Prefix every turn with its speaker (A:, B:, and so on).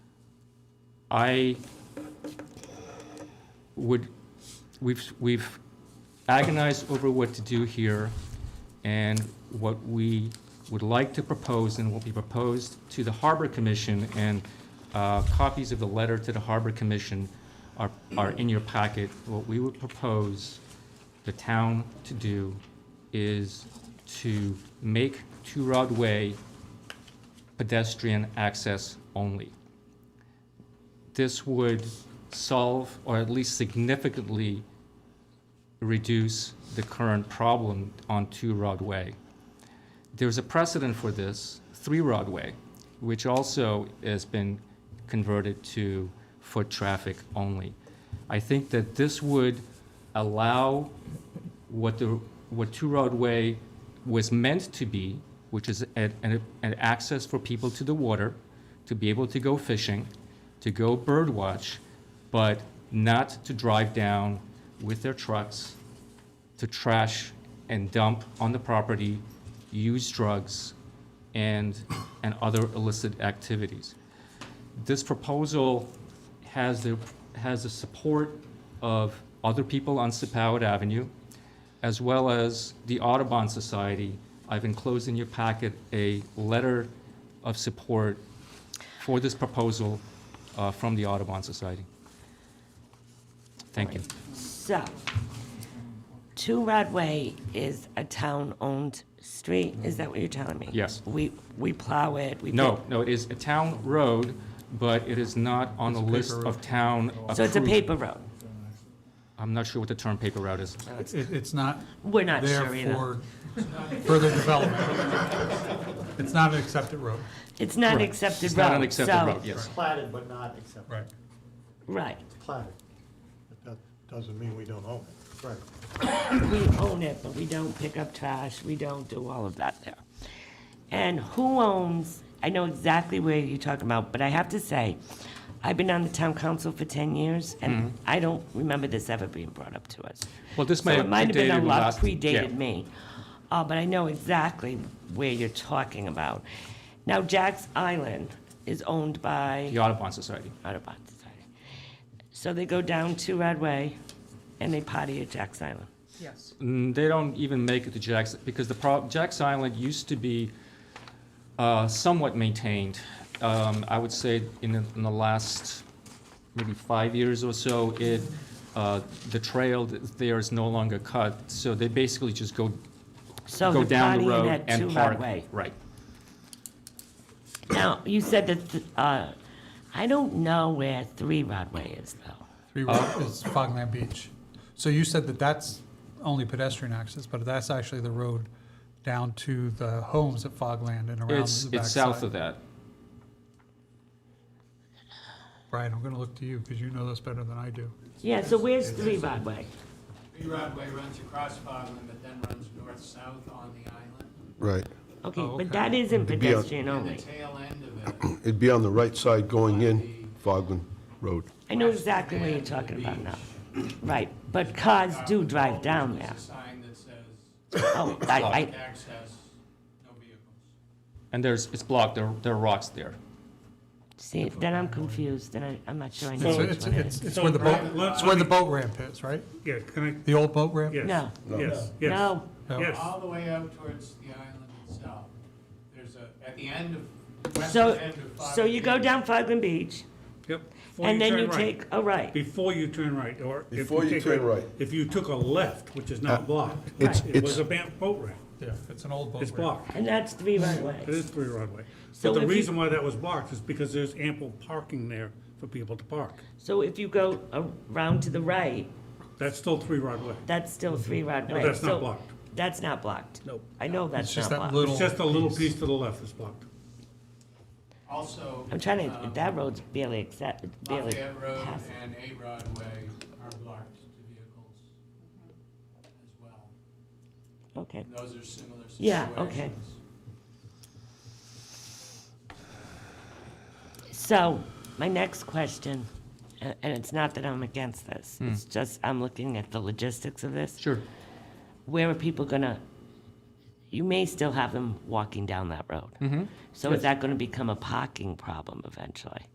A: I would, we've, we've agonized over what to do here, and what we would like to propose and will be proposed to the Harbor Commission, and uh, copies of the letter to the Harbor Commission are, are in your packet. What we would propose the town to do is to make Two Rod Way pedestrian access only this would solve or at least significantly reduce the current problem on Two Rod Way. There's a precedent for this, Three Rod Way, which also has been converted to foot traffic only. I think that this would allow what the, what Two Rod Way was meant to be, which is an, an, an access for people to the water, to be able to go fishing, to go birdwatch, but not to drive down with their trucks to trash and dump on the property, use drugs, and, and other illicit activities. This proposal has the, has the support of other people on Sepauwett Avenue, as well as the Audubon Society. I've enclosed in your packet a letter of support for this proposal uh, from the Audubon Society. Thank you.
B: So, Two Rod Way is a town-owned street, is that what you're telling me?
A: Yes.
B: We, we plow it, we.
A: No, no, it is a town road, but it is not on the list of town approved.
B: So it's a paper road?
A: I'm not sure what the term paper route is.
C: It, it's not
B: We're not
C: there
B: sure either.
C: for further development. It's not an accepted road.
B: It's not an
A: Correct.
B: accepted road.
A: It's not an accepted
B: so-
A: road, yes.
D: platted but not accepted.
C: Right.
B: Right,
D: Platted. But that doesn't mean we don't own it. Right.
B: we own it, but we don't pick up trash, we don't do all of that there. And who owns, I know exactly where you're talking about, but I have to say, I've been on the town council for ten years,
A: Mm-hmm.
B: and I don't remember this ever being brought up to us.
A: Well, this
B: So
A: may have
B: it might have been a
A: predated
B: lot
A: last-
B: predated
A: yeah.
B: me, uh, but I know exactly where you're talking about. Now, Jack's Island is owned by
A: The Audubon Society.
B: Audubon Society. So they go down to Radway and they potty at Jack's Island.
E: Yes.
A: Mm, They don't even make it to Jack's, because the prob, Jack's Island used to be uh, somewhat maintained. Um, I would say in, the- in the last maybe five years or so, it, uh, the trail that's there is no longer cut, so they basically just go,
B: So
A: go
B: they're
A: down the
B: pottying
A: road
B: at
A: and
B: Two
A: park.
B: Radway.
A: Right.
B: Now, you said that, uh, I don't know where Three Radway is though.
C: Three
A: Uh,
C: Road is Fogland Beach. So you said that that's only pedestrian access, but that's actually the road down to the homes at Fogland and around the
A: It's,
C: backside.
A: it's south of that.
C: Brian, I'm gonna look to you, because you know this better than I do.
B: Yeah, so where's Three Radway?
F: Lee Rodway runs across Fogland, but then runs north-south on the island.
G: Right.
B: Okay,
C: Oh,
B: but
C: okay.
B: that isn't
G: be a-
B: pedestrian
F: And the
B: only.
F: tail end of it,
G: It'd be on the right side going in Fogland Road.
B: I know exactly what you're talking about now. Right, but cars do drive down there.
F: uh, there's a sign that says,
B: Oh, I, I,
F: access, no vehicles.
A: And there's, it's blocked, there, there are rocks there.
B: see, then I'm confused, then I, I'm not sure I know
C: It's,
B: which
C: it's,
B: one it
C: it's
B: is.
C: it's
E: So,
C: where the
E: Brian,
C: boat,
E: let-
C: it's
E: let
C: where the
E: me-
C: boat ramp is, right?
E: Yeah, can
C: The old boat ramp?
E: I, yes,
B: No.
E: yes,
B: No,
E: yes.
C: No. Uh-huh.
E: Yes.
F: All the way out towards the island itself, there's a, at the end of,
B: so,
F: western end of Fogland.
B: so you go down Fogland Beach,
E: Yep. Before
B: and then
E: turn
B: you
E: right.
B: take a right.
E: Before you turn right, or. if
G: Before you
E: take
G: turn
E: a-
G: right. Uh,
E: If you took a left, which is now blocked.
G: It's-
E: It was
G: it's-
E: a ban- boat ramp.
C: Yeah, it's an old boat ramp.
E: It's blocked.
B: And that's three right
E: It
B: ways.
E: is three roadway.
B: So
E: But the
B: if you-
E: reason why that was blocked is because there's ample parking there for people to park.
B: So if you go around to the right,
E: That's still three roadway.
B: that's still three right
E: No,
B: way.
E: that's not
B: So
E: blocked.
B: That's not blocked.
E: Nope.
B: I know
C: It's
B: that's
C: just
B: not
C: that
B: blocked.
C: little.
E: It's just a little piece to the left is blocked.
F: Also.
B: I'm trying to,
F: um,
B: that road's barely accept, barely
F: Lafayette Road
B: passed.
F: and A Broadway are blocked to vehicles as well.
B: Okay,
F: And those are similar situations.
B: Yeah, okay. so my next question, a- and it's not that I'm against this, it's just I'm looking at the logistics of this.
A: Sure.
B: where are people gonna, you may still have them walking down that road. So is that gonna become a parking problem eventually?